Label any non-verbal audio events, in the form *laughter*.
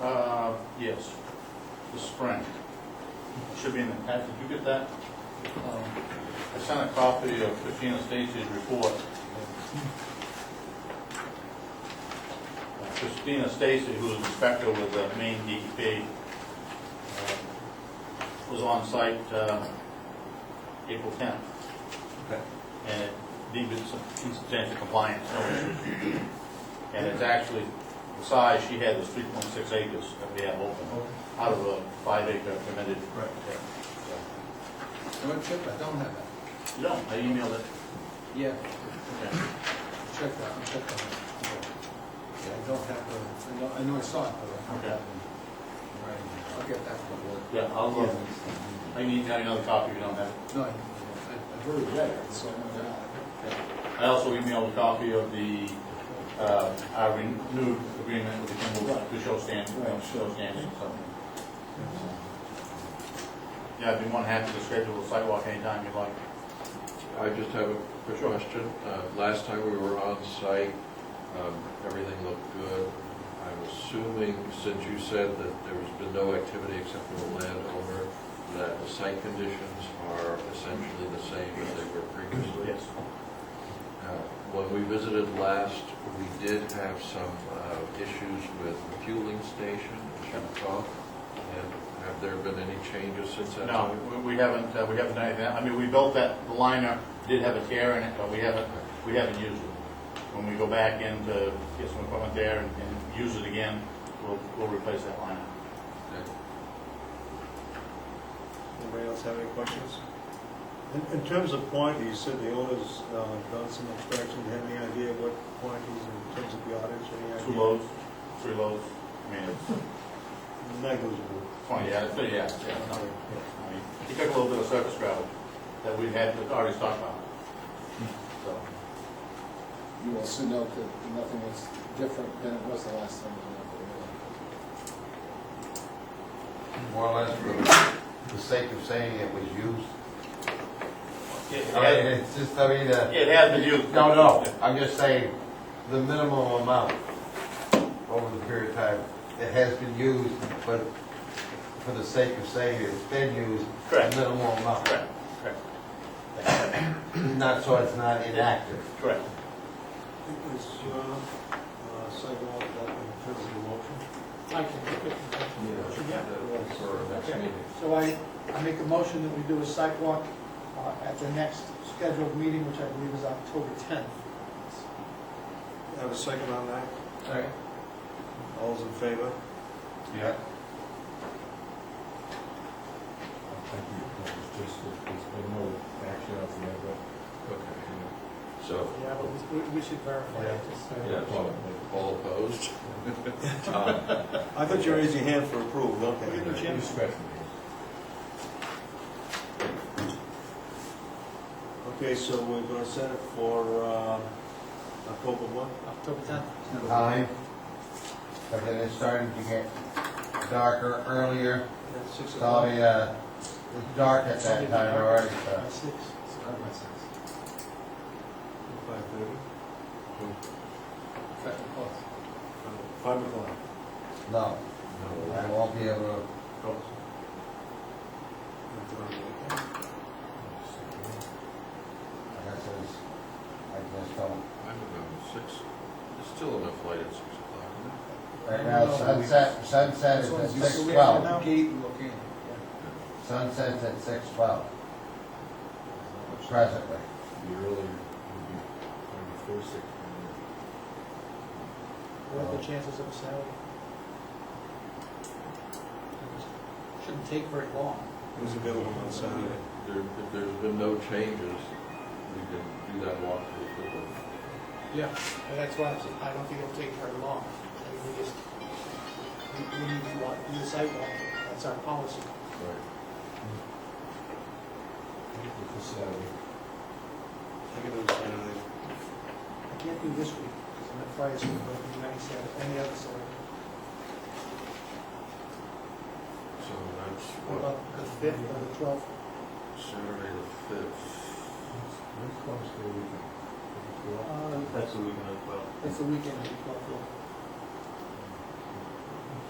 Uh, yes, the spring. Should be in the packet. Did you get that? Um, I sent a copy of Christina Stacy's report. Christina Stacy, who's inspector with the Maine E DEP, uh, was on site, uh, April tenth. Okay. And it deemed it substantial compliance, no issues. And it's actually, the size she had was three point six acres that we have open, Oh, out of a five acre permitted. Right. area. No, check that, don't have that. So, No, I emailed it. Yeah. Okay. Check that, I'll check that. Yeah, I don't have the, I know, I know I saw it, but I don't have it. Right, I'll get that from the Yeah, I'll, uh, I need to have another copy if you don't have it. No, I, I- I've already read it, so I'm not. I also emailed a copy of the, uh, our renewed agreement with the Kimball to show stand, uh, show standing, so. Yeah, I'd be more than happy to schedule a sidewalk anytime you'd like. I just have a quick question. Uh, Last time we were on site, um, everything looked good. I'm assuming, since you said that there's been no activity except for the landowner, that the site conditions are essentially the same as they were previously? Yes. Now, When we visited last, we did have some uh, issues with the fueling station in Chippewa. And have there been any changes since that No, time? we- we haven't, uh, we haven't done anything. I mean, we built that, the liner did have a tear in it, but we haven't, we haven't used it. When we go back in to get some equipment there and, and use it again, we'll, we'll replace that liner. Okay. Anybody else have any questions? In, in terms of quantity, you said the owner's uh, done some inspection, Do you have any idea what quantities in terms of yardage, any idea? Two loads, three loads, I mean, it's Negligible. Uh, twenty, yeah, it's pretty, yeah, yeah, it's not- I mean, He took a little bit of surface gravel that we had already stockpiled. So, You will soon note that nothing is different than it was the last time. More or less for the sake of saying it was used. it I mean, has, it's just, I mean, uh, it has been used. no, no, I'm just saying, the minimum amount over the period of time, it has been used, but for the sake of saying it's been used, the Correct. minimum amount. Correct, correct, Not so it's not inactive. correct. Is your uh, sidewalk up in terms of the motion? I can make it. Yeah, that- for our next Okay. meeting. So I, I make a motion that we do a site walk uh, at the next scheduled meeting, which I believe is October 10th. Have a second on that? Second. All's in favor? Yeah. Okay. So, Yeah, but we, we should verify it. yeah, so all *laughs* opposed? Um, I thought you raised your hand for approval, okay. Give me a chance. Okay, so we're gonna set it for uh, October one? October 10th. Time, but then it's starting to get darker earlier, At six it's already, uh, it's dark at that time already, so. By six. Five thirty? Five o'clock. No, I won't be able to, I guess it's, I just don't, I'm around six, there's still enough light at six o'clock, isn't there? right now sunset, sunset is at six twelve, Gate looking. sunset's at six twelve. Presently, What are the chances of a sale? Shouldn't take very long. It was available on Saturday. There, if there's been no changes, we can do that walk pretty quickly. Yeah. And that's why I'm saying, I don't think it'll take very long. I mean, we just, we, we need to walk, do the site walk. That's our policy. Right. I can do Saturday. I can't do this week, because I'm at fire school, but I can do any Saturday, any other Saturday. So that's What what, about the fifth or the twelfth? Saturday the fifth. Uh, That's the weekend as well. That's the Uh, weekend, the twelfth.